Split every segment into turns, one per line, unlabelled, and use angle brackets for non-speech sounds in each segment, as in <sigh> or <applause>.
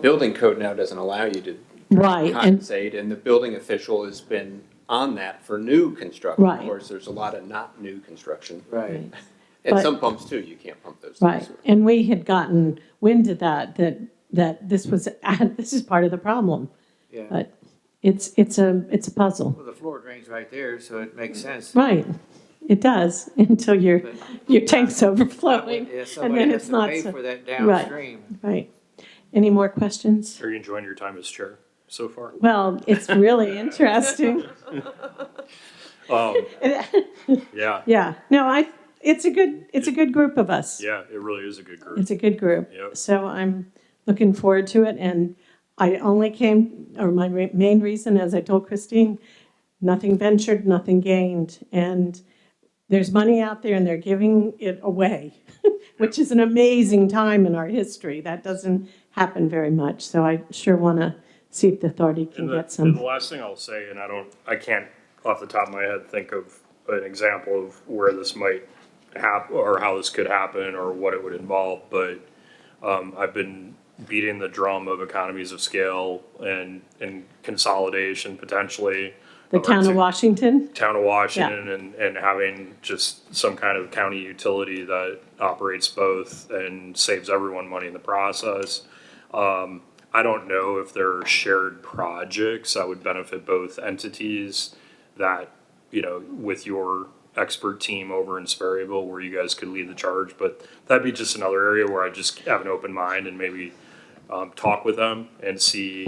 building code now doesn't allow you to
Right, and,
compensate, and the building official has been on that for new construction. Of
Right.
course, there's a lot of not new construction,
Right.
and
But-
some pumps too, you can't pump <laughs> those.
right, and we had gotten wind of that, that, that this was, <laughs> this is part of the problem.
Yeah.
But it's, it's a, it's a puzzle.
Well, the floor drain's right there, so it makes sense.
Right, it does, <laughs> until your,
But-
your tank's overflowing,
Yeah,
and
somebody
then
has
it's
to
not,
pay
so-
for that downstream.
right. Any more questions?
Are you enjoying your time as chair so far?
Well, it's really interesting.
Um, yeah,
Yeah, no, I, it's a good, it's a good group of us.
yeah, it really is a good group.
It's a good group.
Yep.
So I'm looking forward to it. And I only came, or my re- main reason, as I told Christine, nothing ventured, nothing gained. And there's money out there and they're giving it away, <laughs> which is an amazing time in our history. That doesn't happen very much. So I sure want to see if the authority can
And the,
get
and the
some.
last thing I'll say, and I don't, I can't off the top of my head think of an example of where this might happen or how this could happen or what it would involve, but um, I've been beating the drum of economies of scale and, and consolidation potentially. Um,
The
our
town of
two-
Washington?
town of Washington and, and having just some kind of county utility that operates both and saves everyone money in the process. Um, I don't know if there are shared projects that would benefit both entities that, you know, with your expert team over in Sperryville where you guys could lead the charge, but that'd be just another area where I just have an open mind and maybe um, talk with them and see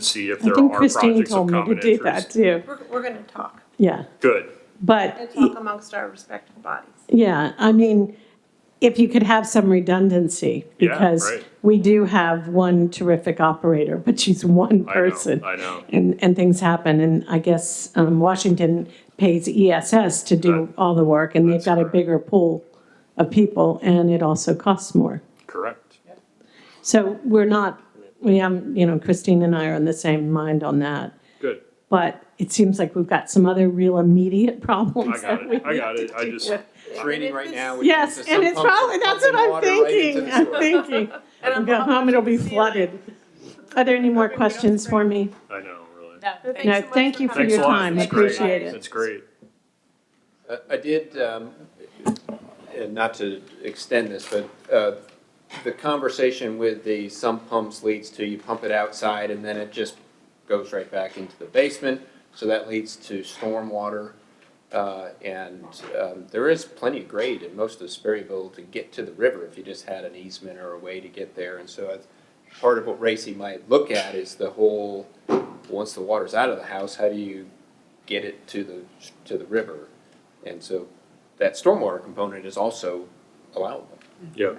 see if
Mm-hmm. I
there
think
are
Christine
projects of
told me to
common
do that
interest.
too.
We're, we're gonna talk
Yeah,
Good.
but.
and talk amongst our respective bodies.
Yeah, I mean, if you could have some redundancy,
Yeah,
because
right.
we do have one terrific operator, but she's one
I know,
person.
I know.
And, and things happen, and I guess um, Washington pays ESS to do
That-
all the work, and they've
that's
got a
correct.
bigger pool of people, and it also costs more.
Correct.
So we're not, we am, you know, Christine and I are on the same mind on that,
Good.
but it seems like we've got some other real immediate <laughs>
I
problems
got
that we
it. I
need
got
to
it. I
deal
just,
with.
It's raining right now.
<laughs>
which
Yes,
means that
and
some
it's
pumps are
probably, that's what
pumping
I'm
water right into
thinking,
the
I'm
sewer.
thinking.
<laughs> And
I'll go home, um, it'll be flooded. Are there any more
Hoping we don't
questions for
scrape.
me?
I know, really.
But thanks
No,
so much
thank you for
coming.
Thanks
your
a lot.
time, I
It's great.
appreciate it.
It's great.
Uh, I did, um, and not to extend this, but uh, the conversation with the sump pumps leads to you pump it outside and then it just goes right back into the basement. So that leads to stormwater. uh, And um, there is plenty of grade in most of Sperryville to get to the river if you just had an easement or a way to get there. And so I- part of what Racy might look at is the whole, once the water's out of the house, how do you get it to the, to the river? And so that stormwater component is also allowable.
Yeah.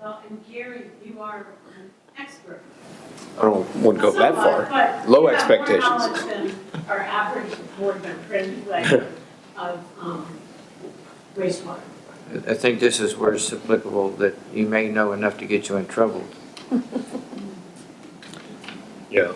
Well, and Gary, you are an expert. uh,
I don't, wouldn't go that far. Low expectations.
Our average board
<laughs>
member anyway of um, wastewater.
I think this is where it's applicable, that you may know enough to get you in trouble.
Yeah.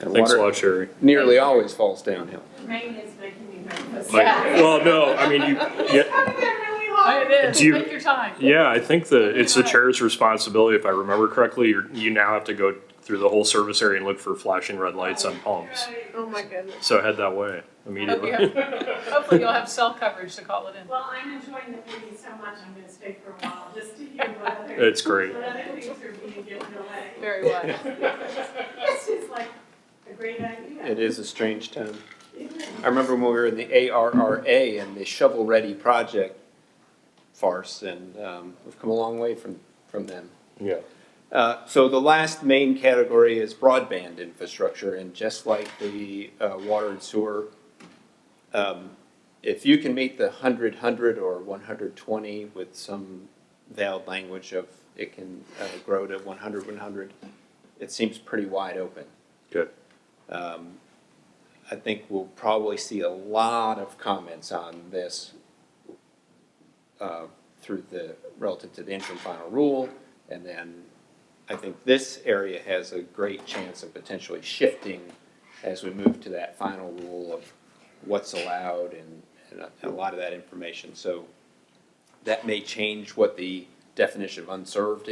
And
Thanks a
water
lot, Sherry.
nearly always falls downhill.
Rain is making me nervous.
Like, well, no, I mean, you, yeah,
It
Do you-
Take
<laughs>
your time.
yeah, I think the, it's the chair's responsibility, if I remember correctly, you're, you now have to go through the whole service area and look for flashing red lights on pumps.
Oh my goodness.
So head that way
Hope you
immediately.
have- Hopefully you'll have cell coverage to call it in.
Well, I'm enjoying the meeting so much, I'm gonna stay for a while, just to hear what
<laughs>
other,
It's great.
what other things are being given away. <laughs>
Very well.
This is like a great idea.
It is a strange town.
Isn't it?
I remember when we were in the ARRA and the shovel-ready project farce, and um, we've come a long way from, from them.
Yeah.
Uh, So the last main category is broadband infrastructure, and just like the uh, water and sewer, um, if you can meet the 100, 100, or 120 with some veiled language of it can uh, grow to 100, 100, it seems pretty wide open.
Good.
Um, I think we'll probably see a lot of comments on this uh, through the, relative to the interim final rule. And then I think this area has a great chance of potentially shifting as we move to that final rule of what's allowed and, and a- a lot of that information. So that may change what the definition of unserved